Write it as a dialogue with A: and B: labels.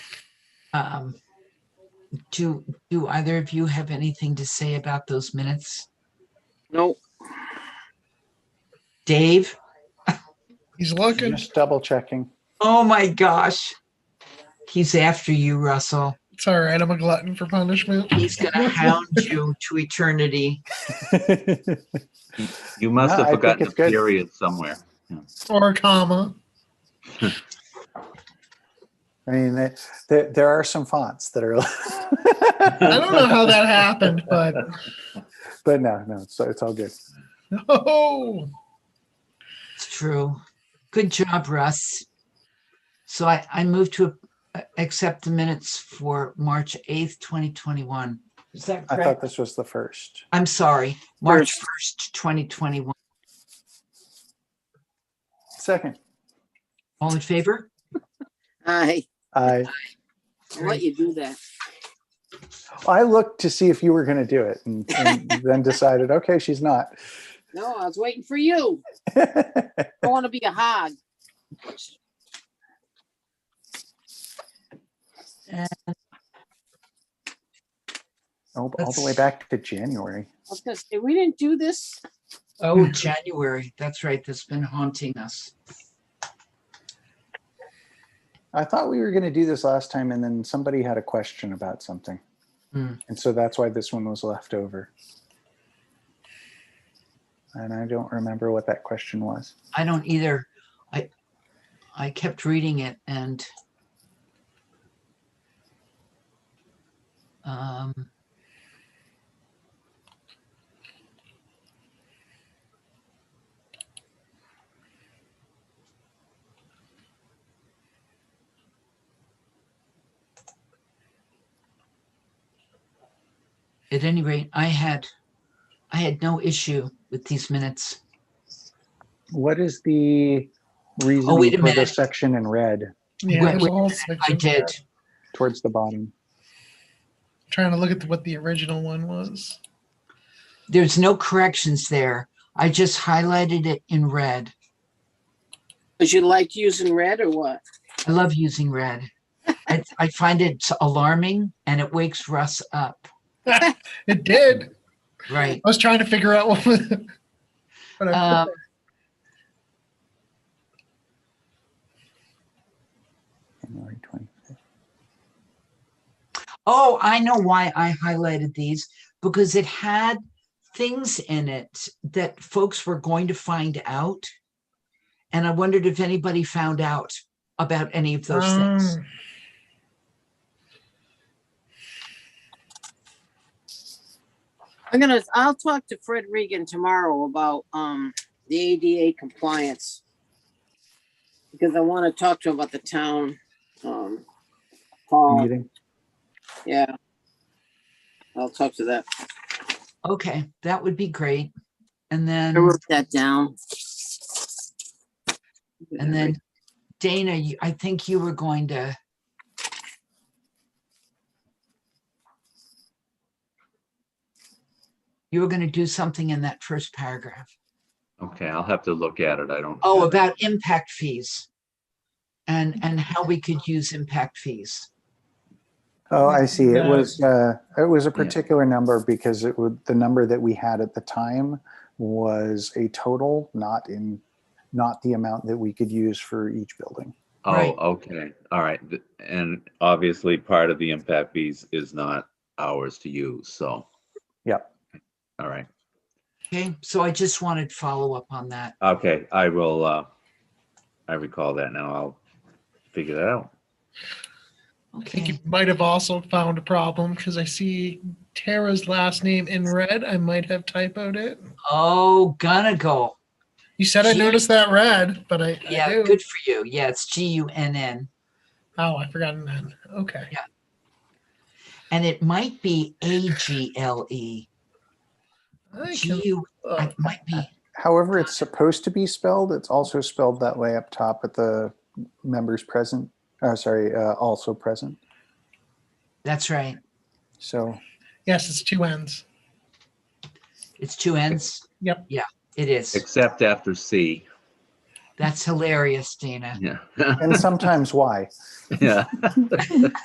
A: Um, Do, do either of you have anything to say about those minutes?
B: No,
A: Dave?
C: He's looking.
D: Just double checking.
A: Oh my gosh. He's after you, Russell.
C: It's all right. I'm a glutton for punishment.
A: He's gonna hound you to eternity.
E: You must
D: No, I think
E: have forgotten a
D: it's good.
E: period somewhere.
C: Or a comma.
D: I mean, there- there, there are some fonts that are,
C: I don't know how that happened, but
D: but no, no, so it's all good.
C: oh,
A: It's true. Good job, Russ. So I, I move to uh, accept the minutes for March 8th, 2021. Is that
D: I thought
A: correct?
D: this was the first.
A: I'm sorry, March 1st, 2021.
D: Second,
A: All in favor?
B: I,
D: I,
B: I'll let you do that.
D: I looked to see if you were going to do it and, and then decided, okay, she's not.
B: No, I was waiting for you. I want to be a hog.
D: all, all the way back to January.
B: I was gonna say, we didn't do this.
A: Oh, January. That's right. That's been haunting us.
D: I thought we were going to do this last time and then somebody had a question about something.
A: Hmm.
D: And so that's why this one was left over. And I don't remember what that question was.
A: I don't either. I, I kept reading it and um, at any rate, I had, I had no issue with these minutes.
D: What is the reason
A: Oh, wait a
D: for the
A: minute.
D: section in red
C: yeah.
A: Wait,
C: there's
A: wait
C: a
A: a
C: whole
A: I
C: section.
A: did.
D: towards the bottom?
C: Trying to look at what the original one was.
A: There's no corrections there. I just highlighted it in red.
B: Cause you like using red or what?
A: I love using red. I, I find it alarming and it wakes Russ up.
C: It did.
A: Right.
C: I was trying to figure out what was. But I,
A: Um,
D: January 20.
A: oh, I know why I highlighted these because it had things in it that folks were going to find out. And I wondered if anybody found out about any of those things.
C: um,
B: I'm gonna, I'll talk to Fred Regan tomorrow about, um, the ADA compliance. Because I want to talk to him about the town, um, hall.
D: meeting.
B: Yeah. I'll talk to that.
A: Okay, that would be great. And
B: I
A: then.
B: wrote that down.
A: And then Dana, you- I think you were going to. You were going to do something in that first paragraph.
E: Okay, I'll have to look at it. I don't.
A: Oh, about Mm-hmm. impact fees. And, and how we could use impact fees.
D: Oh, I see. It
C: Yeah.
D: was, uh, it was a particular number because it would, the number that we had at the time was a total, not in, not the amount that we could use for each building.
E: Oh,
A: right.
E: okay, all right. Th- And obviously, part of the impact fees is not ours to use, so.
D: Yep.
E: All right,
A: Okay, so I just wanted follow up on that.
E: okay, I will, uh, I recall that now. I'll figure that out.
C: I think you
A: Okay,
C: might have also found a problem because I see Tara's last name in red. I might have typoed it.
A: oh, gonna go.
C: You said I
A: Gee.
C: noticed that red, but I, I
A: Yeah,
C: do.
A: good for you. Yeah, it's G U N N.
C: Oh, I forgot that. Okay.
A: And it might be A G L E.
C: I
A: G
C: can,
A: U,
C: uh,
A: it might be.
D: However, it's supposed to be spelled. It's also spelled that way up top at the members present, uh, sorry, uh, also present.
A: That's right.
D: So
C: yes, it's two ends.
A: It's two ends?
C: Yep.
A: Yeah, it is.
E: Except after C,
A: That's hilarious, Dana.
E: yeah,
D: and sometimes why?
E: yeah.